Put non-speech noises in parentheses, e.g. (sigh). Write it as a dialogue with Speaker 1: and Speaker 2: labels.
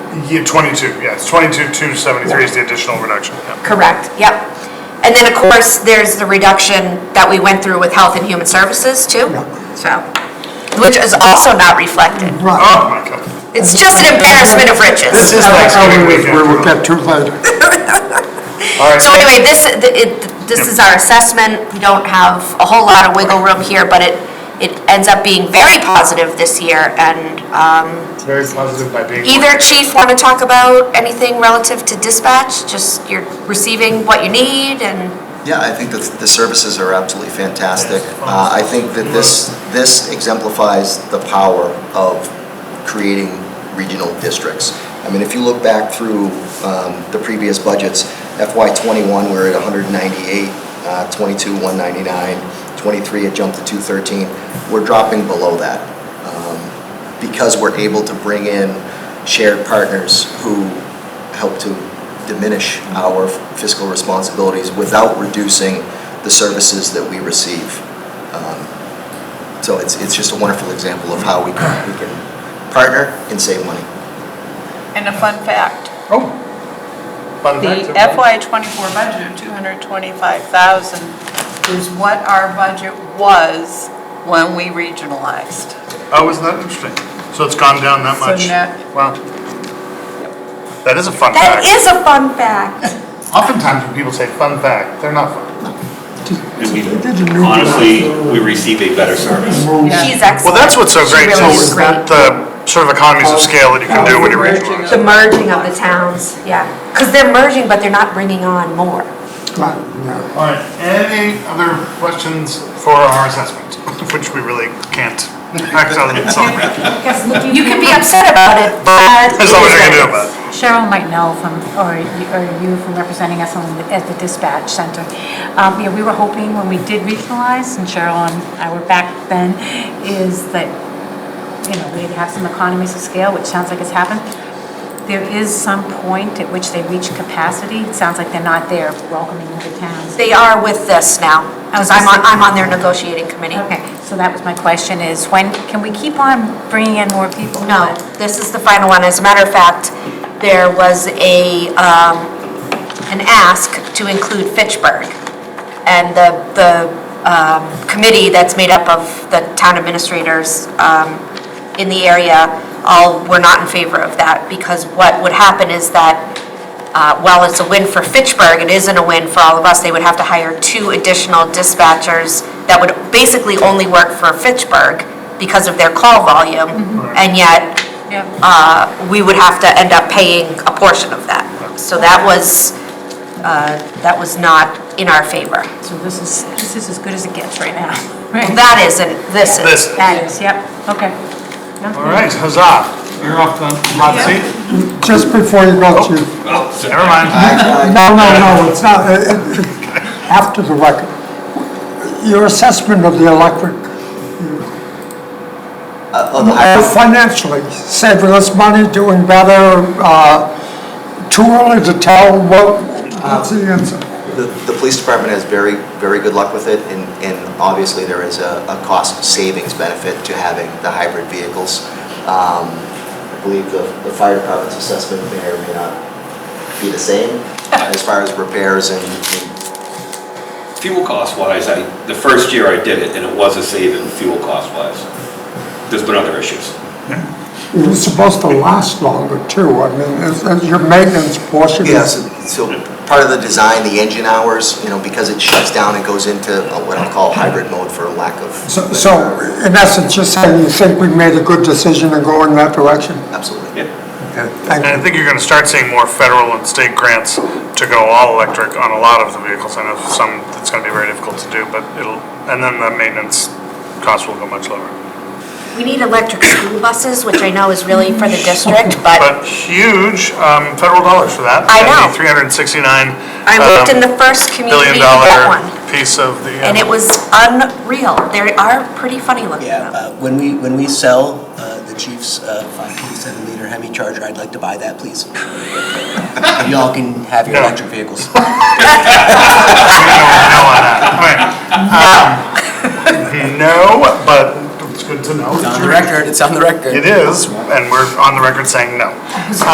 Speaker 1: Yeah, twenty-two, yeah, it's twenty-two, two seventy-three is the additional reduction, yeah.
Speaker 2: Correct, yep. And then, of course, there's the reduction that we went through with Health and Human Services too, so, which is also not reflected.
Speaker 3: Right.
Speaker 1: Oh, my God.
Speaker 2: It's just an embarrassment of riches.
Speaker 3: This is
Speaker 1: Thanksgiving
Speaker 3: like how we
Speaker 1: weekend.
Speaker 3: where we kept two later.
Speaker 1: All right,
Speaker 2: So anyway, this, the- it- this is our assessment. We don't have a whole lot of wiggle room here, but it, it ends up being very positive this year. And
Speaker 1: it's very positive by being.
Speaker 2: either chief want to talk about anything relative to dispatch? Just you're receiving what you need and?
Speaker 4: Yeah, I think that the services are absolutely fantastic. Uh, I think that this, this exemplifies the power of creating regional districts. I mean, if you look back through um, the previous budgets, FY '21, we're at 198, uh, '22, 199, '23, it jumped to 213. We're dropping below that um, because we're able to bring in shared partners who help to diminish our fiscal responsibilities without reducing the services that we receive. Um, So it's, it's just a wonderful example of how we can, we can partner and save money.
Speaker 5: And a fun fact,
Speaker 1: Oh. Fun
Speaker 5: the
Speaker 1: fact of-
Speaker 5: FY '24 budget of 225,000 is what our budget was when we regionalized.
Speaker 1: Oh, isn't that interesting? So it's gone down that
Speaker 5: So
Speaker 1: much?
Speaker 5: net-
Speaker 1: Wow. That is a fun
Speaker 2: That
Speaker 1: fact.
Speaker 2: is a fun fact.
Speaker 1: Oftentimes when people say fun fact, they're not fun.
Speaker 6: And we-
Speaker 3: They didn't know.
Speaker 6: Honestly, we receive a better service.
Speaker 2: She's excellent.
Speaker 1: Well, that's what's so
Speaker 2: She
Speaker 1: great,
Speaker 2: really
Speaker 1: is
Speaker 2: is great.
Speaker 1: the sort of economies of scale that you can do when you're regionalized.
Speaker 2: The merging of the towns, yeah. Because they're merging, but they're not bringing on more.
Speaker 3: Right, yeah.
Speaker 1: All right, any other questions for our assessment, (laughs) which we really can't act on in some
Speaker 2: (laughs)
Speaker 1: way.
Speaker 2: You can be upset about it, but.
Speaker 1: There's nothing I can do about it.
Speaker 7: Cheryl might know from, or you- or you from representing us on the- at the dispatch center. Um, You know, we were hoping when we did regionalize, and Cheryl and I were back then, is that, you know, we'd have some economies of scale, which sounds like it's happened. There is some point at which they reach capacity. It sounds like they're not there welcoming other towns.
Speaker 2: They are with this now, because I'm on, I'm on their negotiating committee.
Speaker 7: Okay, so that was my question is when, can we keep on bringing in more people?
Speaker 2: No, this is the final one. As a matter of fact, there was a, um, an ask to include Fitchburg. And the, the, um, committee that's made up of the town administrators, um, in the area, all were not in favor of that, because what would happen is that, uh, while it's a win for Fitchburg, it isn't a win for all of us. They would have to hire two additional dispatchers that would basically only work for Fitchburg because of their call volume. And yet,
Speaker 7: Yeah.
Speaker 2: uh, we would have to end up paying a portion of that. So that was, uh, that was not in our favor.
Speaker 7: So this is, this is as good as it gets right now, right?
Speaker 2: That isn't, this is.
Speaker 1: This,
Speaker 7: That is, yep, okay.
Speaker 1: all right, huzzah. You're off the hot seat.
Speaker 3: Just before you go to,
Speaker 6: Oh, so-
Speaker 1: Never mind.
Speaker 3: no, no, no, it's not, it- it- it- after the record. Your assessment of the electric,
Speaker 4: Uh, on the high-
Speaker 3: uh, financially, saving us money, doing better, uh, too early to tell what, what's the answer?
Speaker 4: The, the police department has very, very good luck with it, and, and obviously there is a, a cost savings benefit to having the hybrid vehicles. Um, I believe the, the fire department's assessment may or may not be the same as far as repairs and, and
Speaker 6: Fuel cost wise, I, the first year I did it, and it was a saving fuel cost wise. There's been other issues.
Speaker 3: It was supposed to last longer too, I mean, is, is your maintenance portion
Speaker 4: Yes,
Speaker 3: is.
Speaker 4: so part of the design, the engine hours, you know, because it shuts down and goes into uh, what I'll call hybrid mode for lack of.
Speaker 3: So, so in essence, you're saying you think we made a good decision in going that direction?
Speaker 4: Absolutely.
Speaker 6: Yeah.
Speaker 3: Okay, Thank
Speaker 1: And
Speaker 3: you.
Speaker 1: I think you're gonna start seeing more federal and state grants to go all electric on a lot of the vehicles. I know some, it's gonna be very difficult to do, but it'll, and then the maintenance costs will go much lower.
Speaker 2: We need electric school buses, which I know is really for the district, but
Speaker 1: But huge, um, federal dollars for that.
Speaker 2: I know.
Speaker 1: Three hundred and sixty-nine.
Speaker 2: I worked in the first
Speaker 1: Billion
Speaker 2: community to get
Speaker 1: um, dollar
Speaker 2: one,
Speaker 1: piece of the. uh,
Speaker 2: and it was unreal. They are pretty funny looking
Speaker 8: Yeah, uh,
Speaker 2: though.
Speaker 8: when we, when we sell uh, the Chief's 5.7 liter Hemi Charger, I'd like to buy that, please. (laughs) Y'all can have your
Speaker 1: No.
Speaker 8: electric vehicles.
Speaker 1: no on that.
Speaker 2: (laughs)
Speaker 1: Alright. Um, No, but it's good to know.
Speaker 8: It's on the record, it's on the record.
Speaker 1: It is, and we're on the record saying no.